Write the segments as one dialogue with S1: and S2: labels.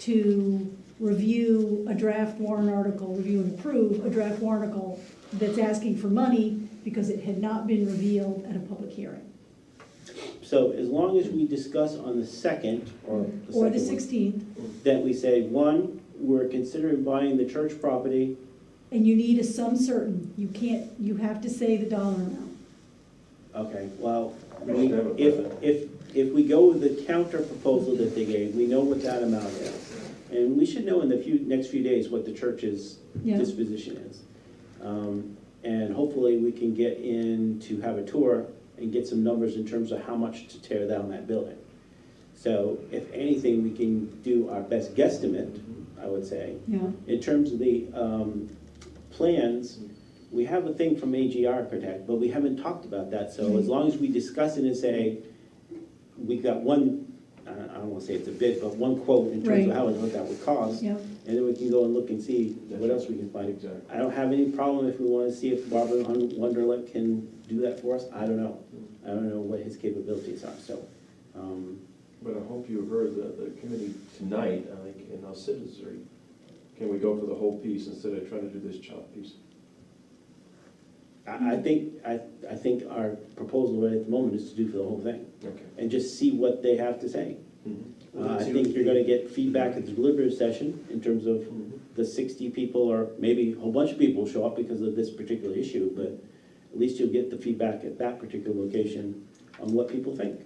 S1: to review a draft warrant article, review and approve a draft warrant article that's asking for money because it had not been revealed at a public hearing.
S2: So as long as we discuss on the second, or the
S1: Or the
S2: second
S1: sixteenth,
S2: one, that we say, one, we're considering buying the church property,
S1: and you need a sum certain, you can't, you have to say the dollar amount.
S2: okay, well,
S3: We
S2: we-
S3: should have a
S2: if,
S3: plan.
S2: if, if we go with the counter proposal that they gave, we know what that amount is. And we should know in the few, next few days what the church's
S1: Yeah,
S2: disposition is. Um, And hopefully, we can get in to have a tour and get some numbers in terms of how much to tear down that building. So if anything, we can do our best guesstimate, I would say.
S1: yeah,
S2: In terms of the um, plans, we have a thing from AG Architect, but we haven't talked about that. So as long as we discuss it and say, we got one, I don't- I don't want to say it's a bid, but one quote in
S1: Right.
S2: terms of how much that would cost.
S1: yeah.
S2: And then we can go and look and see what else we can find.
S3: Exactly.
S2: I don't have any problem if we wanna see if Robert Hun- Wunderlich can do that for us, I don't know. I don't know what his capabilities are, so, um,
S3: But I hope you heard that the committee tonight, I think, in our citizenry, can we go for the whole piece instead of trying to do this chop piece?
S2: I, I
S1: Mm-hmm.
S2: think, I, I think our proposal right at the moment is to do for the whole thing,
S3: Okay.
S2: and just see what they have to say.
S3: Mm-hmm.
S4: Well,
S2: Uh, I
S4: that's
S2: think
S4: your-
S2: you're gonna get feedback at the deliberative session in terms of
S3: Mm-hmm.
S2: the sixty people, or maybe a whole bunch of people show up because of this particular issue, but at least you'll get the feedback at that particular location on what people think.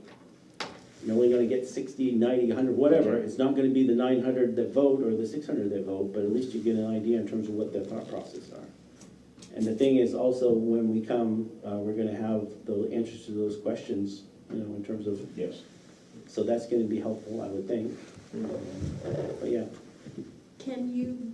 S2: You're only gonna get 60, 90, hundred, whatever, it's not gonna be the nine hundred that vote or the six hundred that vote, but at least you get an idea in terms of what their thought process are. And the thing is also, when we come, uh, we're gonna have the answers to those questions, you know, in terms of,
S3: Yes.
S2: so that's gonna be helpful, I would think,
S3: Mm-hmm.
S2: but yeah.
S5: Can you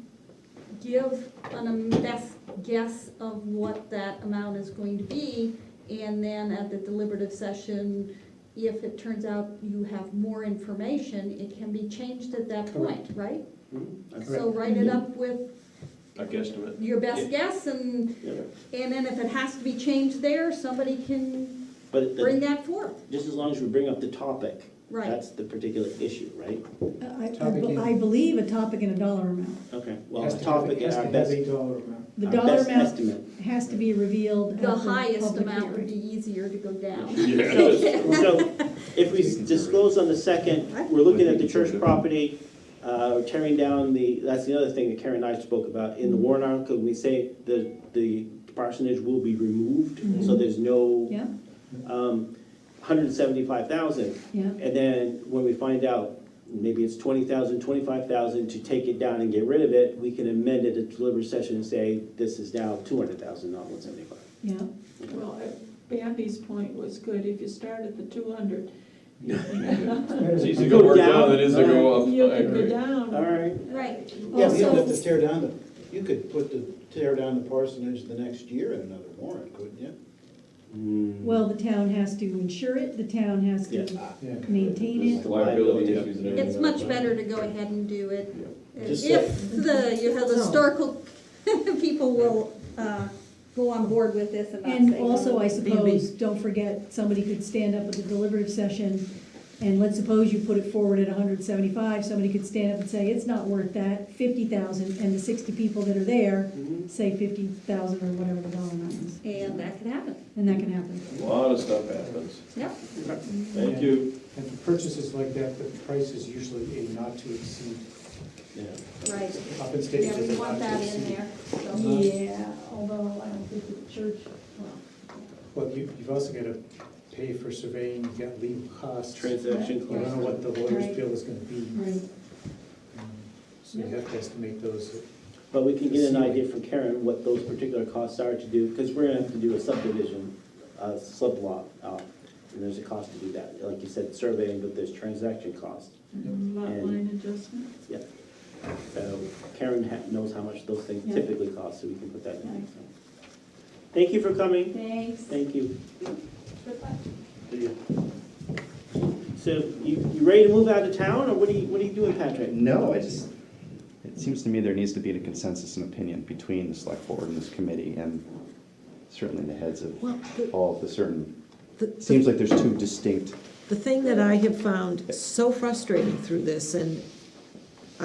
S5: give an best guess of what that amount is going to be? And then at the deliberative session, if it turns out you have more information, it can be changed at that point, right? So write
S4: Mm-hmm.
S5: it up with
S3: I guesstimate.
S5: your best guess and,
S2: Yeah.
S5: and then if it has to be changed there, somebody can
S2: But the-
S5: bring that forth,
S2: just as long as we bring up the topic.
S5: right?
S2: That's the particular issue, right?
S1: I- I, I
S4: Topic
S1: be-
S4: is-
S1: I believe a topic and a dollar amount.
S2: Okay, well,
S4: Has
S2: the
S4: to have-
S2: topic
S4: has
S2: is
S4: to
S2: our
S4: have
S2: best,
S4: a dollar amount.
S1: The
S2: our
S1: dollar
S2: best
S1: amount
S2: estimate.
S1: has to be revealed at
S5: The highest
S1: public
S5: amount would
S1: hearing.
S5: be easier to go down.
S2: So,
S3: Yes.
S2: so if we disclose on the second, we're looking at the church property, uh, tearing down the, that's the other thing that Karen and I spoke about. In the
S5: Mm-hmm.
S2: warrant article, we say the, the parsonage will be removed,
S5: Mm-hmm.
S2: so there's no,
S1: Yeah,
S2: um, hundred and seventy-five thousand.
S1: yeah,
S2: And then when we find out, maybe it's twenty thousand, twenty-five thousand, to take it down and get rid of it, we can amend it at deliberative session and say, this is now two hundred thousand, not one seventy-five.
S1: yeah.
S2: Mm.
S6: Well, Bambi's point was good, if you start at the two hundred,
S3: It's
S4: It's
S3: easy to
S4: better
S3: go work
S2: down.
S3: down than it is to go up.
S6: you
S3: I
S6: could go
S3: agree.
S2: All
S6: down.
S2: right,
S5: Right.
S4: than- Yeah, but you don't have
S5: Also,
S4: to tear down the, you could put the, tear down the parsonage the next year in another warrant, couldn't you?
S1: Well, the town has to insure it, the town has to
S2: Yeah.
S4: Yeah.
S1: maintain it.
S3: There's Liability
S2: Yeah.
S3: issues and everything.
S5: it's
S4: uh,
S5: much better to go ahead and do it
S4: Just
S5: If the, you have the historical people will uh, go on board with this and not
S1: And
S5: say
S1: also,
S5: no.
S1: I suppose, don't forget, somebody could stand up at the deliberative session, and let's suppose you put it forward at hundred and seventy-five, somebody could stand up and say, it's not worth that, fifty thousand, and the sixty people that are there say fifty thousand or whatever the dollar amount is.
S5: And that could happen,
S1: And that can happen.
S3: A lot of stuff happens.
S5: yeah.
S3: Thank you.
S4: And for purchases like that, the price is usually a not to exceed,
S2: yeah.
S5: Right,
S4: up in
S5: yeah,
S4: stages
S5: we
S4: as not
S5: want
S4: to
S5: that in
S4: exceed.
S5: there, so.
S1: Yeah, although I don't think the church, well,
S4: Well, you, you've also gotta pay for surveying, you've got legal costs. You
S2: Transaction
S4: don't know
S2: costs.
S4: what the lawyer's
S5: Right.
S4: bill is gonna be, Um,
S1: right,
S4: so you have to estimate those.
S2: But we can get an idea from Karen what those particular costs are to do, because we're gonna have to do a subdivision, uh, sublot, uh, and there's a cost to do that. Like you said, surveying, but there's transaction costs.
S6: Lot line adjustment,
S2: So Karen ha- knows how much those things
S1: Yeah.
S2: typically cost, so we can put that in.
S1: Right.
S2: so. Thank you for coming.
S5: Thanks.
S2: Thank you. Good luck. So you, you ready to move out of town, or what are you, what are you doing, Patrick?
S7: No, I just, it seems to me there needs to be a consensus and opinion between the select board and this committee and certainly the heads of
S8: Well, the,
S7: all of the certain,
S8: the-
S7: it
S8: the,
S7: seems like there's two distinct,
S8: the thing that I have found so frustrating through this, and